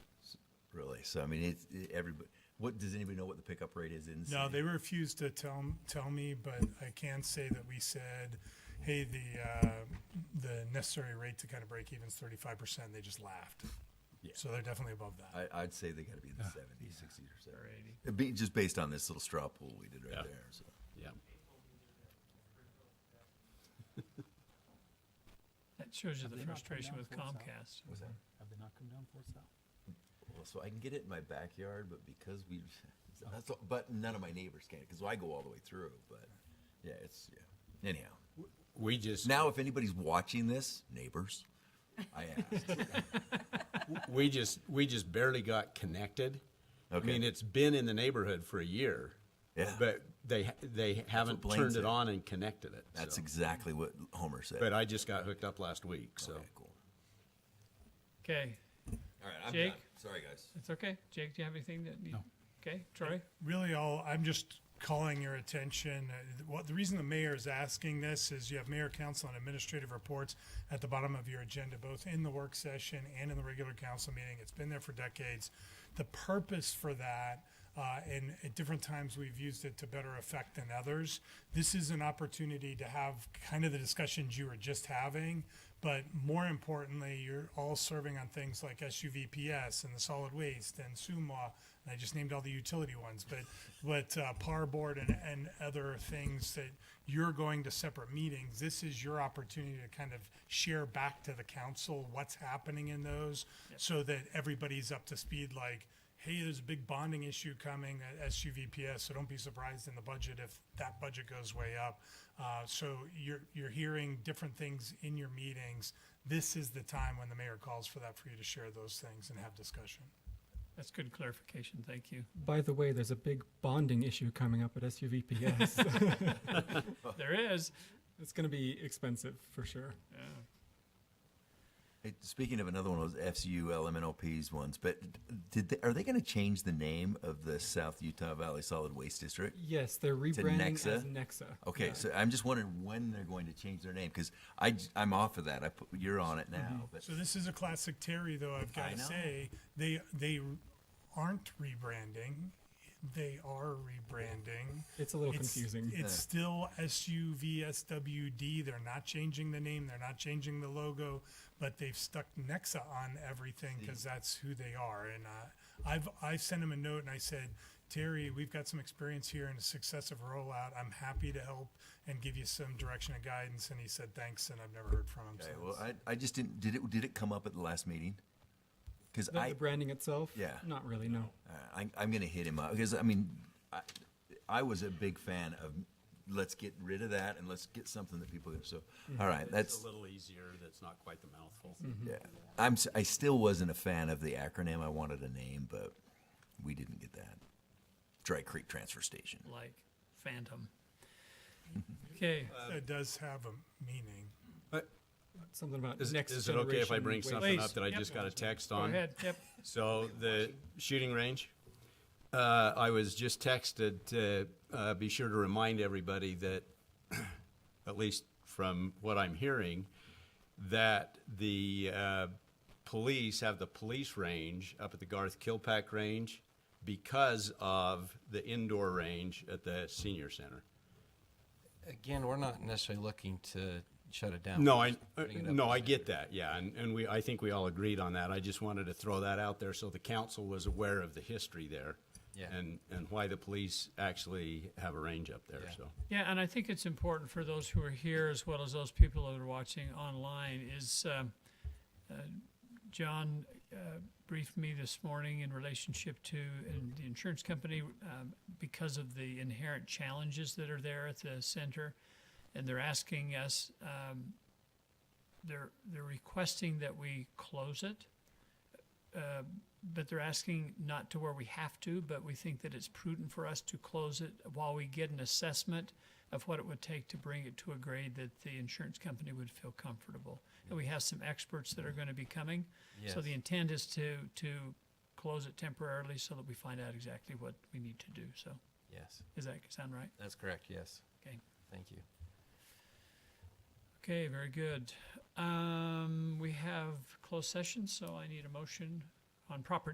place. So I mean, it's it, everybody. What does anybody know what the pickup rate is in? the No, city? they refused to tell tell me, but I can say that we said, "Hey, the uh, the necessary rate to kind of break even is thirty five percent." They just laughed. Yeah. So they're definitely above that. I, I'd say they got to be in the 70s, 60s, or 70s. It'd be just based on this little straw poll we did right Yeah. there. So. Yeah. That shows you Have the they not come frustration down with for us, huh? Comcast. What's that? Have they not come down for us now? Well, so I can get it in my backyard, but because we, so that's all, but none of my neighbors can because I go all the way through. But yeah, it's yeah. Anyhow, We just, now if anybody's watching this, neighbors, I asked. we just, we just barely got connected. I Okay. mean, it's been in the neighborhood for a year. Yeah. But they, they haven't Blaine turned said. it on and connected it. That's so. exactly what Homer said. But I just got hooked up last week, so. okay, cool. Okay, All right, I'm Jake? done. Sorry, guys. it's okay. Jake, do you have anything that you? Okay, Troy? really all I'm just calling your attention. uh, What the reason the mayor is asking this is you have mayor, council, and administrative reports at the bottom of your agenda, both in the work session and in the regular council meeting. It's been there for decades. The purpose for that. Uh, and at different times, we've used it to better effect than others. This is an opportunity to have kind of the discussions you were just having, but more importantly, you're all serving on things like SUVPS and the solid waste and SUMA. And I just named all the utility ones, but but uh, par board and, and other things that you're going to separate meetings. This is your opportunity to kind of share back to the council what's happening in those, so that everybody's up to speed. Like, hey, there's a big bonding issue coming at SUVPS, so don't be surprised in the budget if that budget goes way up. Uh, so you're, you're hearing different things in your meetings. This is the time when the mayor calls for that, for you to share those things and have discussion. That's good clarification. Thank you. By the way, there's a big bonding issue coming up at SUVPS. There is. uh, it's going to be expensive for sure. Hey, Speaking of another one of those FCU LMNOPs ones, but did they, are they going to change the name of the South Utah Valley Solid Waste District? Yes, they're rebranding as Nexa? Nexa. Okay, Yeah. so I'm just wondering when they're going to change their name because I am off of that. I put, you're on it now, but uh, So this is a classic Terry, though. I've I got to know. say, they they aren't rebranding; they are rebranding. It's a little confusing. It's still SUVSWD. They're not changing the name. They're not changing the logo, but they've stuck Nexa on everything Hmm. because that's who they are. And uh, I've I sent him a note and I said, Terry, we've got some experience here in a successive rollout. I'm happy to help and give you some direction and guidance. And he said, thanks. And I've never heard from him okay, since. well, I, I just didn't. Did it? Did it come up at the last meeting? Because the, I the branding itself? Yeah. Not really, no. Uh, I, I'm going to hit him up because I mean, I, I was a big fan of let's get rid of that and let's get something that people. So, all right, that's a little easier, that's not quite the mouthful. Mm-hmm. yeah. I'm s- I still wasn't a fan of the acronym. I wanted a name, but we didn't get that. Dry Creek Transfer Station. Like phantom. Okay, That does have a meaning. Something about Is, next is it okay if I generation bring waste. something Please. up that I Yep. just got a text go on? ahead. Yep. So the shooting range, uh, I was just texted to uh, be sure to remind everybody that, at least from what I'm hearing, that the uh, police have the police range up at the Garth Kilpack range because of the indoor range at the senior center. Again, we're not necessarily looking to shut it down. No, We're I just uh, putting it up no, as I a- get that. Yeah, and, and we I think we all agreed on that. I just wanted to throw that out there so the council was aware of the history there, Yeah. and and why the police actually have a range up there. Yeah. So Yeah, and I think it's important for those who are here as well as those people that are watching online is um, uh, John uh, briefed me this morning in relationship to in the insurance company um, because of the inherent challenges that are there at the center, and they're asking us. Um, they're they're requesting that we close it but they're asking not to where we have to, but we think that it's prudent for us to close it while we get an assessment of what it would take to bring it to a grade that the insurance company would feel comfortable. And we have some experts that are going to be coming. So Yes. the intent is to, to close it temporarily so that we find out exactly what we need to do. So Yes, does that sound right? that's correct, yes. Okay. Thank you. Okay, very good. Um, we have closed session, so I need a motion on property.